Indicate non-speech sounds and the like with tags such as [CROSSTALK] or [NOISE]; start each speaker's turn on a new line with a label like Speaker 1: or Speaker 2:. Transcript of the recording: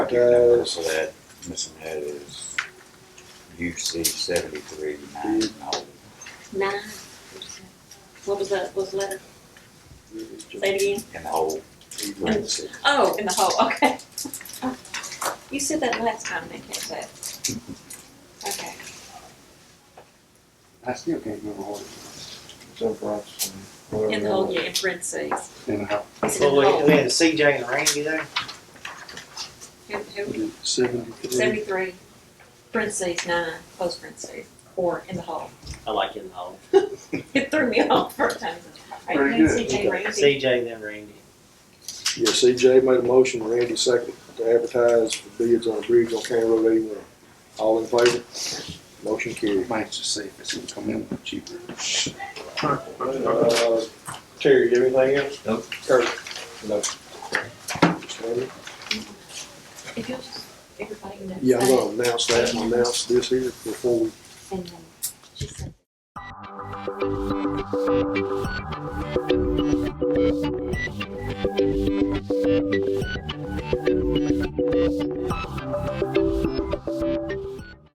Speaker 1: your number,
Speaker 2: does-
Speaker 1: so that, missing that is UC seventy-three nine oh.
Speaker 3: Nine. What was that, what was the letter? Say it again.
Speaker 1: in the hole.
Speaker 2: Parentheses.
Speaker 3: Oh, in the hole, okay. [LAUGHS] You said that last time, and I can't say it. Okay.
Speaker 2: I still can't remember what it was.
Speaker 4: Jump rocks and whatever.
Speaker 3: In the hole, yeah, in parentheses.
Speaker 2: And how,
Speaker 3: It's in the
Speaker 5: Well, we, we
Speaker 3: hole.
Speaker 5: had CJ and Randy there.
Speaker 3: Who, who,
Speaker 2: seventy-three,
Speaker 3: seventy-three, parentheses, nine, close parentheses, or in the hole. [LAUGHS]
Speaker 5: I like in the hole.
Speaker 3: It threw me off for a time. All right,
Speaker 2: Pretty
Speaker 3: then
Speaker 2: good.
Speaker 3: CJ Ramsey.
Speaker 5: CJ then Randy.
Speaker 4: Yeah, CJ made a motion, Randy second, to advertise for bids on a bridge on County Road eighty-one. All in favor? Motion carried.
Speaker 2: might just see if it's gonna come in cheaper.
Speaker 4: Uh, Terry, you have anything else?
Speaker 1: Nope.
Speaker 4: Kurt? No. Mr. Lambert?
Speaker 3: If you'll just, everybody knows.
Speaker 4: Yeah, I'm gonna announce that and announce this here before we
Speaker 3: And then she said.